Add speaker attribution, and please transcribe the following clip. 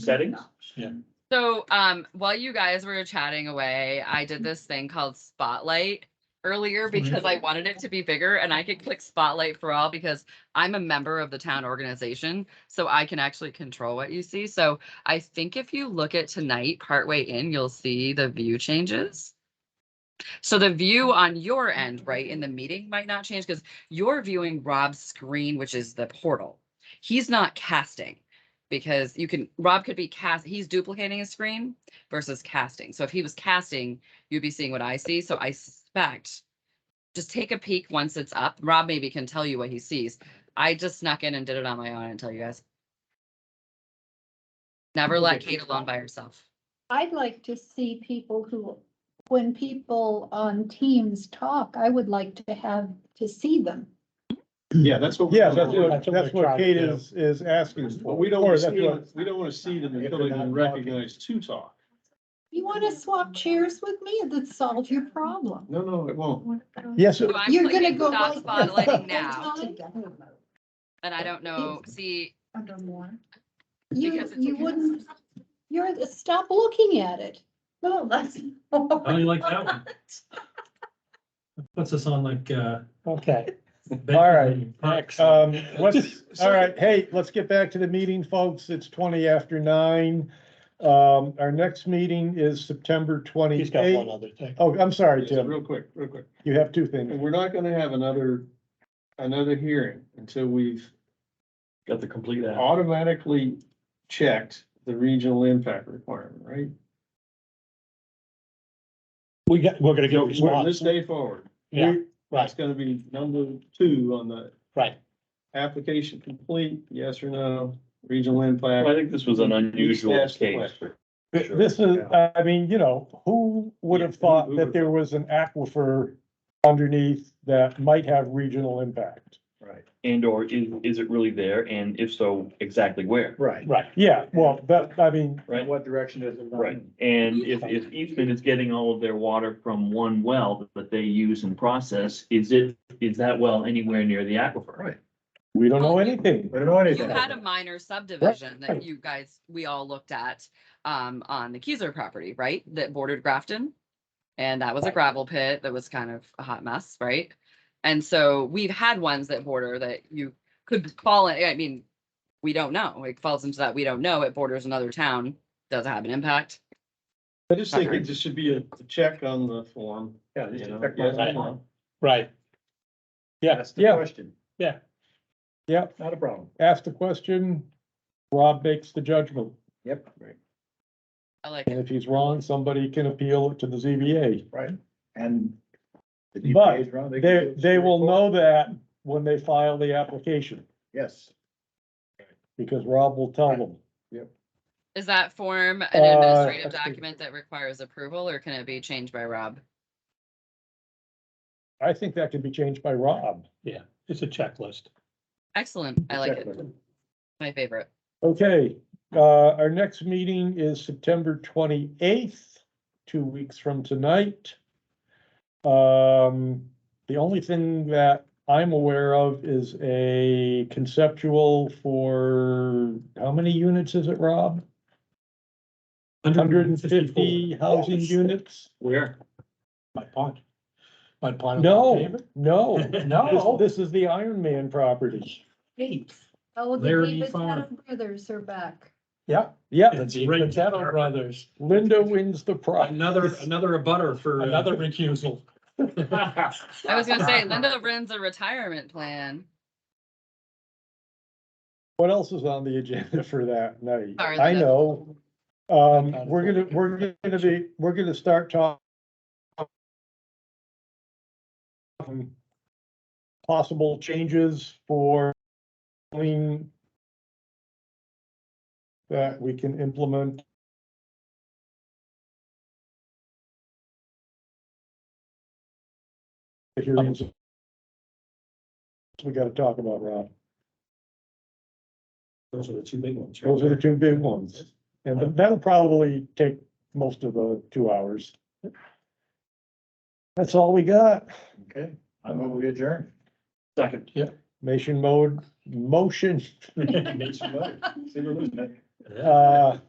Speaker 1: settings.
Speaker 2: So um while you guys were chatting away, I did this thing called Spotlight earlier because I wanted it to be bigger and I could click Spotlight for all because I'm a member of the town organization, so I can actually control what you see. So I think if you look at tonight partway in, you'll see the view changes. So the view on your end, right, in the meeting might not change because you're viewing Rob's screen, which is the portal. He's not casting because you can Rob could be cast he's duplicating his screen versus casting. So if he was casting, you'd be seeing what I see. So I suspect just take a peek once it's up. Rob maybe can tell you what he sees. I just snuck in and did it on my own and tell you guys. Never let Kate alone by herself.
Speaker 3: I'd like to see people who, when people on teams talk, I would like to have, to see them.
Speaker 4: Yeah, that's what.
Speaker 5: Yeah, that's what,
Speaker 4: we-
Speaker 5: that's what Kate is, is asking
Speaker 4: But
Speaker 5: for.
Speaker 4: we don't,
Speaker 5: Or
Speaker 4: wanna
Speaker 5: that's
Speaker 4: see
Speaker 5: what-
Speaker 4: them- we don't want to see them until they've been recognized to talk.
Speaker 3: You want to swap chairs with me? That solves your problem.
Speaker 4: No, no, it won't.
Speaker 5: Yes,
Speaker 2: So I'm
Speaker 3: You're
Speaker 2: clicking
Speaker 3: gonna go
Speaker 2: Stop
Speaker 3: like. this
Speaker 2: spotlighting
Speaker 3: the
Speaker 2: now,
Speaker 3: whole
Speaker 2: and I don't know, see,
Speaker 3: time.
Speaker 2: Because
Speaker 3: You,
Speaker 2: it's
Speaker 3: you
Speaker 2: okay.
Speaker 3: wouldn't, you're, stop looking at it. No, that's.
Speaker 6: I only like that one. Puts us on like, uh.
Speaker 5: okay.
Speaker 6: Benjamin
Speaker 5: All right,
Speaker 6: Parks.
Speaker 5: Um, what's, all right, hey, let's get back to the meeting, folks. It's twenty after nine. Um, our next meeting is September
Speaker 7: He's got one
Speaker 5: twenty-eighth.
Speaker 7: other thing.
Speaker 5: Oh, I'm sorry,
Speaker 4: Yes,
Speaker 5: Tim.
Speaker 4: Real quick, real quick.
Speaker 5: You have two
Speaker 4: And
Speaker 5: things.
Speaker 4: we're not gonna have another, another hearing until we've
Speaker 1: Got the complete app.
Speaker 4: automatically checked the regional impact requirement, right?
Speaker 7: We got, we're gonna
Speaker 4: So
Speaker 7: get
Speaker 4: From
Speaker 7: response.
Speaker 4: this day forward,
Speaker 7: Yeah,
Speaker 4: that's
Speaker 7: right,
Speaker 4: gonna be number two on the
Speaker 7: right.
Speaker 4: application complete, yes or no, regional
Speaker 1: I
Speaker 4: impact.
Speaker 1: think this was an unusual
Speaker 4: That's the
Speaker 1: case.
Speaker 4: question.
Speaker 1: Sure.
Speaker 5: This is, I mean, you know, who would have
Speaker 4: Yeah, who-
Speaker 5: thought
Speaker 4: who
Speaker 5: that
Speaker 4: would-
Speaker 5: there was an aquifer underneath that might have regional impact?
Speaker 1: Right. And or is, is it really there? And if so, exactly where?
Speaker 7: Right. Right.
Speaker 5: Yeah, well, that, I mean,
Speaker 1: Right.
Speaker 4: What direction does it?
Speaker 1: Right. And if, if Eastman is getting all of their water from one well that they use and process, is it, is that well anywhere near the aquifer? Right.
Speaker 5: we don't know anything.
Speaker 4: don't know
Speaker 2: you had a minor subdivision that you guys, we all looked at, um, on the Keyser property, right, that bordered Grafton? And that was a gravel pit that was kind of a hot mess, right? And so we've had ones that border that you could fall in, I mean, we don't know, it falls into that, we don't know, it borders another town, does it have an impact?
Speaker 4: I just think it just should be a a check on the form. Yeah.
Speaker 7: Right. Right. Yeah,
Speaker 5: Yeah.
Speaker 4: question.
Speaker 7: Yeah.
Speaker 5: Yep.
Speaker 4: Not a problem.
Speaker 5: ask the question, Rob makes the judgment.
Speaker 4: Yep. Right.
Speaker 2: I like,
Speaker 5: And if he's wrong, somebody can appeal it to the ZBA.
Speaker 4: And.
Speaker 5: But They, they will know that when they file the application,
Speaker 4: Yes.
Speaker 5: because Rob will tell them.
Speaker 2: is that form an
Speaker 5: Uh,
Speaker 2: administrative
Speaker 5: let's see.
Speaker 2: document that requires approval, or can it be changed by Rob?
Speaker 5: I think that can be changed by Rob.
Speaker 7: it's a checklist.
Speaker 2: Excellent, I like it, my favorite.
Speaker 5: Okay, uh, our next meeting is September twenty-eighth, two weeks from tonight. Um, the only thing that I'm aware of is a conceptual for, how many units is it, Rob? Hundred and fifty housing units?
Speaker 4: Where?
Speaker 7: My pond. My pond.
Speaker 5: No, no,
Speaker 7: No.
Speaker 5: this, this is the Iron Man property.
Speaker 3: Oh, the
Speaker 6: Larry
Speaker 3: David
Speaker 6: Farr.
Speaker 3: Tatum Brothers are back.
Speaker 5: Yeah,
Speaker 7: It's Ray Tattler Brothers,
Speaker 5: Linda wins the prize.
Speaker 6: Another, another abutter for. uh,
Speaker 7: another recusal.
Speaker 2: I was gonna say Linda runs a retirement plan.
Speaker 5: What else is on the agenda for that night?
Speaker 2: Sorry,
Speaker 5: I
Speaker 2: Linda.
Speaker 5: know. Um, we're gonna, we're gonna be, we're gonna start talking possible changes for clean that we can implement. The hearings. We gotta talk about, Rob.
Speaker 7: Those are the two big ones.
Speaker 5: Those are the two big ones, and that'll probably take most of the two hours. That's all we got.
Speaker 4: Okay, I'm over adjourned.
Speaker 1: Second.
Speaker 5: Motion mode, motion,
Speaker 4: See you later.
Speaker 5: uh,